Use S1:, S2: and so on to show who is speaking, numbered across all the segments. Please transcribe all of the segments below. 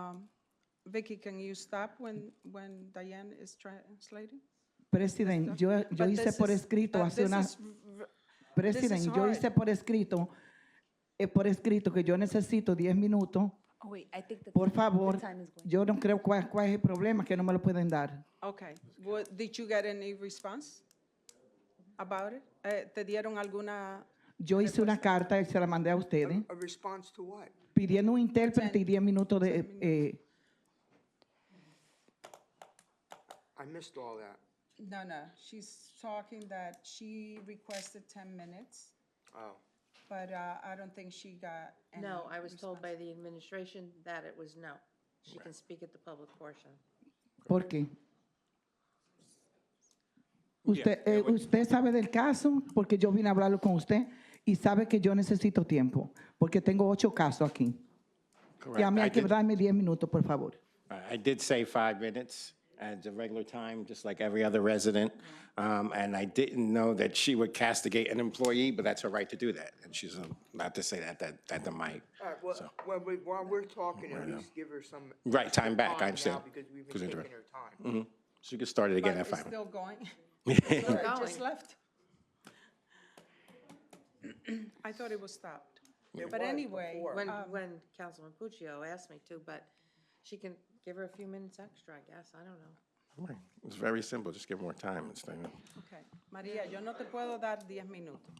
S1: Um, Vicky, can you stop when, when Diane is translating?
S2: President, yo, yo
S1: But
S2: hice
S1: this
S2: por
S1: is-
S2: escrito
S1: but
S2: hace
S1: this
S2: una,
S1: is v-
S2: President, yo
S1: hard.
S2: hice por escrito, eh, por escrito que yo necesito 10 minutos.
S3: Oh, wait, I think the.
S2: Por
S3: time- the
S2: favor,
S3: time is going.
S2: yo no creo cuál, cuál es el problema que no me lo pueden dar.
S1: Okay, What- did you get any response about it? Eh, ¿Te dieron alguna
S2: Yo hice una carta y se la mandé a
S4: Hmm?
S2: ustedes
S5: A response to what?
S2: pidiendo un intérprete y 10 minutos de... eh,
S5: I missed all that.
S1: No, no, she's talking that she requested ten minutes,
S5: Oh,
S1: but uh, I don't think she got any.
S6: No, I was told by the administration that it was no. She can speak at the public portion.
S2: ¿Por qué? Usted, eh, usted sabe del caso porque yo vine a hablarlo con usted y sabe que yo necesito tiempo porque tengo ocho casos aquí.
S4: Correct.
S2: Y a mí
S4: I
S2: hay que
S4: did- uh,
S2: darme 10 minutos, por favor.
S4: I did say five minutes at the regular time, just like every other resident. Um, And I didn't know that she would castigate an employee, but that's her right to do that. And she's um, allowed to say that, that, that the mic.
S5: all right, well, while we- while we're talking, at least give her some.
S4: Right, time back, I
S5: time now,
S4: understand. Mm-hmm.
S5: Because we've
S4: Because
S5: been
S4: interrupt-
S5: taking her time.
S4: She could start it again
S1: But
S4: at
S1: it's
S4: five.
S1: still going. Sorry, I just left. I thought it was stopped.
S5: It
S1: But
S5: was
S1: anyway,
S5: before.
S6: When, when Councilman Puccio asked me to, but she can give her a few minutes extra, I guess, I don't know.
S4: minutes. It's very simple, just give more time instead of.
S1: Okay, María, yo no te puedo dar diez minutos.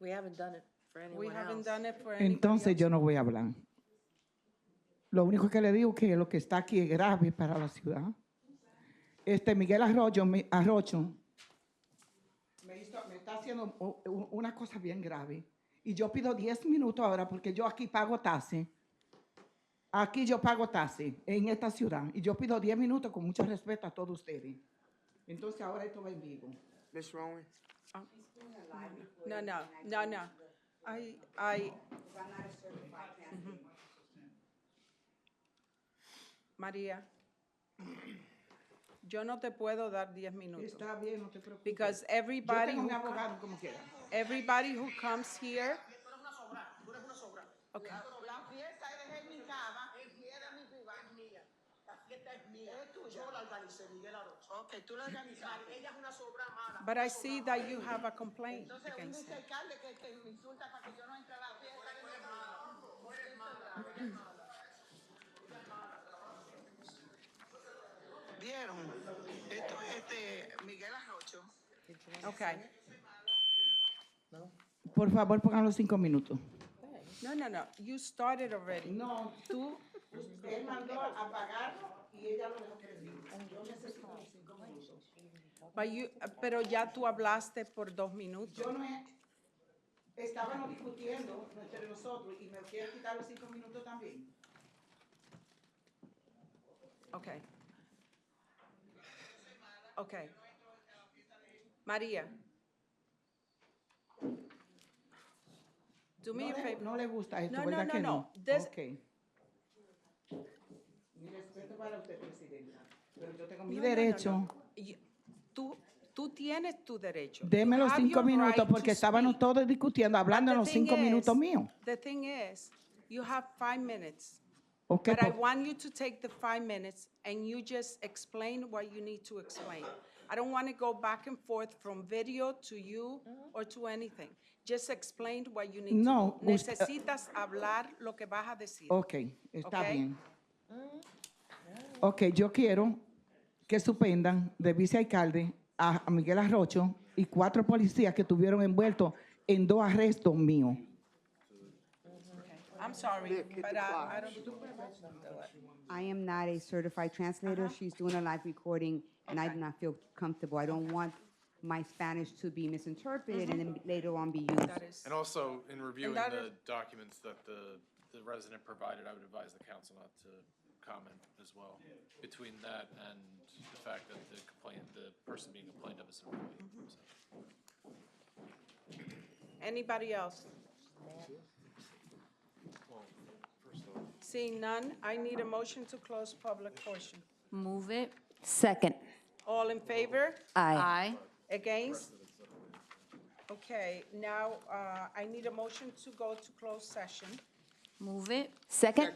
S6: We haven't done it for anyone
S1: We
S6: else.
S1: haven't done it for any.
S2: Entonces yo no voy a hablar. Lo único que le digo que lo que está aquí es grave para la ciudad. Este Miguel Arroyo, me, Arrocho me, hizo- me está haciendo u- u- una cosa bien grave. Y yo pido 10 minutos ahora porque yo aquí pago taxi. Aquí yo pago taxi en esta ciudad. Y yo pido 10 minutos con mucho respeto a todos ustedes. Entonces ahora esto va en vivo.
S5: Ms. Rowan,
S1: No, no, no, no. I, I. Mhm. María, yo no te puedo dar diez minutos.
S2: Está bien, no te preocupes.
S1: Because
S2: Yo
S1: everybody,
S2: tengo
S1: who
S2: un
S1: co-
S2: abogado como quiera.
S1: everybody who comes here,
S7: La fiesta es de mi cama, es mía, de mi privada, es mía. La fiesta es mía. Es tuya. Yo la organicé, Miguel Arocho. Ok, tú la organizaste. Ella es una sobra mala.
S1: but I see that you have a complaint
S7: Entonces, un
S1: against him.
S7: vicealcalde que, que me insulta para que yo no entre a la fiesta. Tú eres mala. Tú eres mala. Vieron, esto es este Miguel Arrocho.
S1: Okay.
S2: Por favor, pongan los cinco minutos.
S1: No, no, no. You started already.
S2: No, tú, usted mandó a pagarlo y ella lo dejó perdido. Yo necesito los cinco minutos.
S1: But you, pero ya tú hablaste por dos minutos.
S2: Yo no he, estábamos discutiendo entre nosotros y me quieres quitar los cinco minutos también.
S1: Okay. Okay. María. Do me a
S2: No le-
S1: favor.
S2: No le gusta esto,
S1: No, no,
S2: ¿verdad
S1: no,
S2: que
S1: no.
S2: no?
S1: This-
S2: Ok. Mi respeto para usted, Presidenta, pero yo tengo mi
S1: No, no, no, no.
S2: derecho.
S1: Y- Tú, tú tienes tu derecho. You
S2: Deme los
S1: have
S2: cinco
S1: your
S2: minutos
S1: right to
S2: porque estábamos
S1: speak.
S2: todos discutiendo, hablando en
S1: The
S2: los
S1: thing
S2: cinco minutos
S1: is-
S2: míos.
S1: The thing is, you have five minutes.
S2: Ok, pues.
S1: But I
S2: por-
S1: want you to take the five minutes and you just explain what you need to explain. I don't want to go back and forth from video to you or to anything. Just explain what you need to do.
S2: No, Oh. us-
S1: Necesitas hablar lo que vas a decir.
S2: Ok, está
S1: Ok.
S2: bien. Ok, yo quiero que suspendan de vicealcalde a a Miguel Arrocho y cuatro policías que estuvieron envueltos en dos arrestos míos.
S1: I'm sorry,
S5: hit the
S1: but uh, I, I
S5: clock.
S1: don't.
S8: I am not a certified translator.
S3: Uh-huh.
S8: She's doing a live recording, and I do not feel comfortable. I don't want my Spanish to be misinterpreted
S3: Mm-hmm.
S8: and then later on be used.
S1: That is,
S9: And also, in reviewing
S1: that
S9: the
S1: is-
S9: documents that the, the resident provided, I would advise the council not to comment as well. Between that and the fact that the complaint, the person being complained of is an
S1: Mm-hmm.
S9: employee. so.
S1: anybody else? Seeing none, I need a motion to close public portion.
S3: Move it.
S6: Second.
S1: All in favor?
S3: Aye.
S1: Against? Okay, now, uh, I need a motion to go to closed session.
S3: Move it.
S6: Second.